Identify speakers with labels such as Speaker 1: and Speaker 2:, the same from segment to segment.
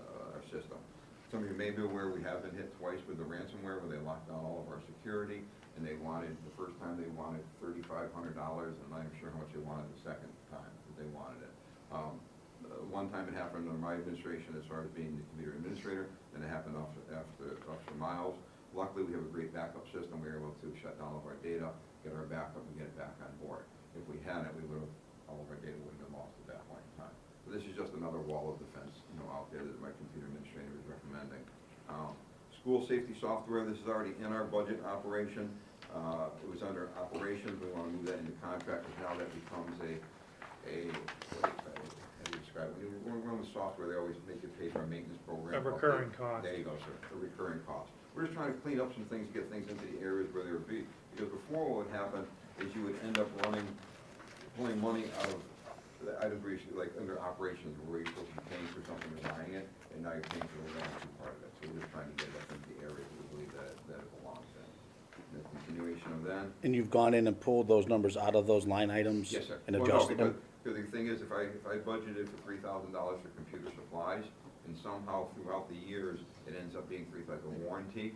Speaker 1: uh, Some of you may be aware, we have been hit twice with the ransomware where they locked down all of our security and they wanted, the first time they wanted thirty-five hundred dollars and I'm not even sure how much they wanted the second time that they wanted it. Um, uh, One time it happened under my administration as far as being the computer administrator, then it happened after, after Officer Miles. Luckily, we have a great backup system. We were able to shut down all of our data, get our backup and get it back on board. If we hadn't, we would have, all of our data would have been lost at that point in time. So this is just another wall of defense, you know, out there that my computer administrator is recommending. Um, School safety software, this is already in our budget operation. Uh, It was under operations. We want to move that into contract because now that becomes a, a, how do you describe it? When you run with software, they always make you pay for a maintenance program.
Speaker 2: A recurring cost.
Speaker 1: There you go, sir, a recurring cost. We're just trying to clean up some things, get things into the areas where they would be. Because before what would happen is you would end up running, pulling money out of the items where you should, like under operations, where you're supposed to be paying for something and buying it, and now you're paying for the wrong two part of it. So we're just trying to get it up into the areas we believe that, that it belongs in. The continuation of that,
Speaker 3: And you've gone in and pulled those numbers out of those line items?
Speaker 1: Yes, sir.
Speaker 3: And
Speaker 1: Well, no,
Speaker 3: adjusted
Speaker 1: because-
Speaker 3: them?
Speaker 1: Because the thing is, if I, if I budgeted for three thousand dollars for computer supplies, and somehow throughout the years, it ends up being three, like a warranty,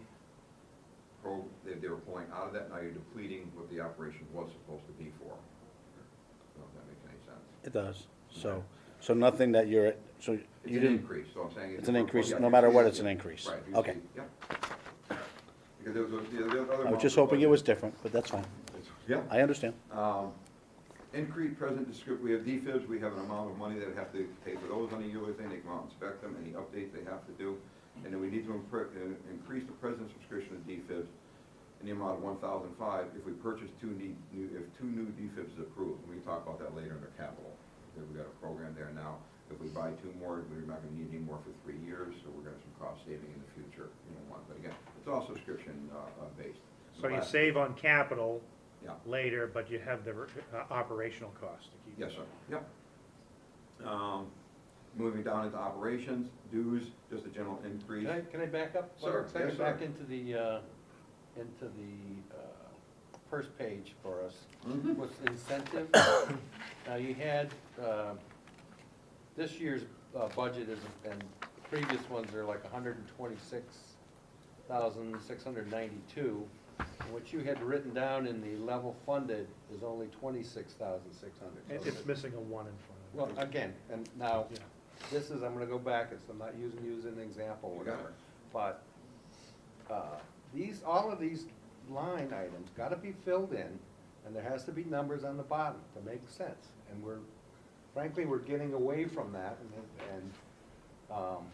Speaker 1: pro, they, they were pulling out of that, now you're depleting what the operation was supposed to be for. I don't know if that makes any sense.
Speaker 3: It does. So, so nothing that you're, so
Speaker 1: It's
Speaker 3: you
Speaker 1: an
Speaker 3: didn't,
Speaker 1: increase, so I'm saying.
Speaker 3: It's an increase,
Speaker 1: Yeah,
Speaker 3: no
Speaker 1: you
Speaker 3: matter
Speaker 1: see
Speaker 3: what,
Speaker 1: it.
Speaker 3: it's an increase.
Speaker 1: Right. you
Speaker 3: Okay.
Speaker 1: see- Yep. Because there was, a- the other.
Speaker 3: I was just hoping it was different, but that's fine.
Speaker 1: Yeah.
Speaker 3: I understand.
Speaker 1: Um, Increased present descrip, we have DFIBs, we have an amount of money that we have to pay for those on a yearly thing, they come out and inspect them, any updates they have to do. And then we need to impre- uh, increase the present subscription of DFIBs in the amount of one thousand five if we purchase two ne- new, if two new DFIBs is approved. And we can talk about that later under capital, because we've got a program there now. If we buy two more, we're not gonna need any more for three years, so we're gonna have some cost saving in the future, you know, one. But again, it's all subscription, uh, uh, based.
Speaker 2: So you
Speaker 1: Last-
Speaker 2: save on capital
Speaker 1: Yeah.
Speaker 2: later, but you have the uh, operational cost to keep.
Speaker 1: Yes, sir, yep. Um, Moving down into operations, dues, just a general increase.
Speaker 4: Can I, can I back up?
Speaker 1: Sir,
Speaker 4: Can I
Speaker 1: yes, sir.
Speaker 4: Back into the, uh, into the uh, first page for us.
Speaker 1: Mhm.
Speaker 4: What's the incentive? Now, you had, uh, this year's uh, budget is, and previous ones are like hundred and twenty-six thousand, six hundred ninety-two. What you had written down in the level funded is only twenty-six thousand, six hundred.
Speaker 2: It- It's missing a one in front of it.
Speaker 4: Well, again, and now,
Speaker 2: Yeah.
Speaker 4: this is, I'm gonna go back, it's, I'm not using you as an example,
Speaker 1: You Oh, got it.
Speaker 4: whatever. But, uh, these, all of these line items gotta be filled in, and there has to be numbers on the bottom to make sense. And we're, frankly, we're getting away from that, and, and, um,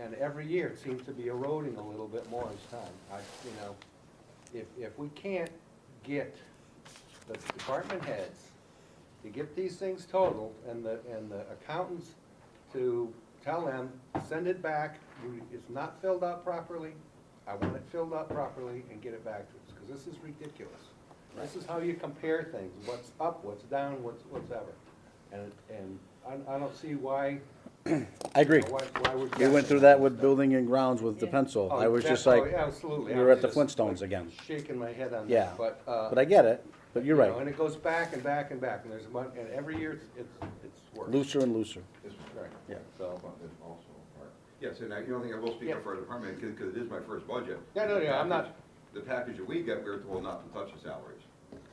Speaker 4: and every year, it seems to be eroding a little bit more each time. I, you know, if, if we can't get the department heads to get these things totaled and the, and the accountants to tell them, send it back, you- it's not filled out properly, I want it filled out properly and get it back to us, because this is ridiculous. This is how you compare things, what's up, what's down, what's, what's ever. And, and I, I don't see why,
Speaker 3: I agree.
Speaker 4: why, why we're.
Speaker 3: We went through that with building and grounds with the
Speaker 5: Yeah.
Speaker 3: pencil.
Speaker 4: Oh,
Speaker 3: I was just
Speaker 4: exactly.
Speaker 3: like,
Speaker 4: Oh, absolutely.
Speaker 3: we
Speaker 4: I
Speaker 3: were
Speaker 4: was
Speaker 3: at the
Speaker 4: just,
Speaker 3: Flintstones
Speaker 4: like,
Speaker 3: again.
Speaker 4: Shaking my head on
Speaker 3: Yeah.
Speaker 4: that, but, uh.
Speaker 3: But I get it, but you're
Speaker 4: you know, And
Speaker 3: right.
Speaker 4: it goes back and back and back, and there's, mon- and every year it's, it's, it's worse.
Speaker 3: Looser and looser.
Speaker 1: This is
Speaker 4: Right,
Speaker 3: Yeah.
Speaker 4: so.
Speaker 1: Well, that's also a part. Yes, and I, you don't think I will speak up for our department, because it is my first budget.
Speaker 4: Yeah, no, yeah, I'm not-
Speaker 1: The package that we get, we were told not to touch the salaries.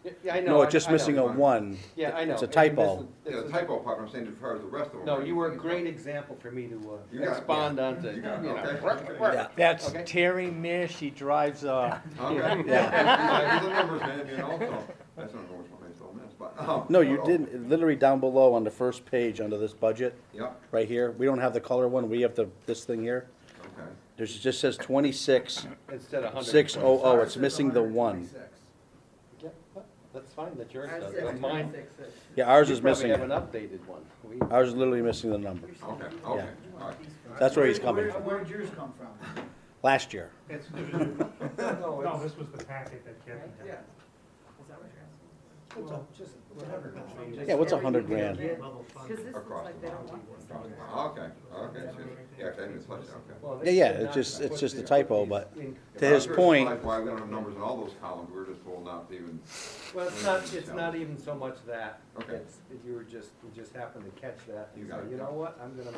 Speaker 4: Yeah, yeah, I know.
Speaker 3: No,
Speaker 4: I-
Speaker 3: it's just
Speaker 4: I know.
Speaker 3: missing a one.
Speaker 4: Yeah, I know.
Speaker 3: It's a
Speaker 4: And this is-
Speaker 3: typo.
Speaker 4: this
Speaker 1: Yeah, the
Speaker 4: is-
Speaker 1: typo part, I'm saying as far as the rest of them.
Speaker 4: No, you were a great example for me to
Speaker 1: You
Speaker 4: uh,
Speaker 1: got it.
Speaker 4: expand on to,
Speaker 1: You
Speaker 4: you
Speaker 1: got it,
Speaker 4: know.
Speaker 1: okay.
Speaker 4: work, work.
Speaker 3: Yeah.
Speaker 6: That's
Speaker 4: Okay.
Speaker 6: Terry Mir, she drives, uh,
Speaker 1: Okay. Yeah, the numbers, man, you know, so, that's not always what I still miss, but. um,
Speaker 3: No, you
Speaker 1: uh-oh.
Speaker 3: didn't, literally down below on the first page under this budget,
Speaker 1: Yep,
Speaker 3: right here, we don't have the color one, we have the, this thing here.
Speaker 1: okay.
Speaker 3: There's, it just says twenty-six,
Speaker 4: Instead of hundred.
Speaker 3: six oh oh, it's missing the one.
Speaker 4: That's fine, that yours
Speaker 5: Ours
Speaker 4: does,
Speaker 5: is
Speaker 4: but mine.
Speaker 3: Yeah, ours
Speaker 4: you
Speaker 3: is missing
Speaker 4: Probably
Speaker 3: it.
Speaker 4: have an updated one. We-
Speaker 3: Ours is literally missing the number,
Speaker 1: Okay, okay, all right.
Speaker 3: That's where he's coming from.
Speaker 7: Where'd yours come from?
Speaker 3: last year.
Speaker 7: It's,
Speaker 4: no,
Speaker 2: No,
Speaker 4: it's-
Speaker 2: this was the packet that Kathy had.
Speaker 7: yeah. Well, just whatever.
Speaker 3: Yeah, what's a hundred grand?
Speaker 5: Because this looks
Speaker 1: Across
Speaker 5: like
Speaker 1: the
Speaker 5: they don't want this.
Speaker 1: Oh, Okay, okay, so- yeah, I didn't touch that, okay.
Speaker 4: well,
Speaker 3: Yeah, yeah,
Speaker 4: this
Speaker 3: it's
Speaker 4: is
Speaker 3: just-
Speaker 4: not-
Speaker 3: it's just a typo, but-
Speaker 4: In-
Speaker 3: To his
Speaker 1: I'm sure
Speaker 3: point-
Speaker 1: it's Why we don't have numbers in all those columns, we're just told not to even,
Speaker 4: Well, it's not, it's not even so much that.
Speaker 1: Okay.
Speaker 4: It's- You were just, you just happened to catch that. and
Speaker 1: You got
Speaker 4: say,
Speaker 1: it.
Speaker 4: You know what, I'm gonna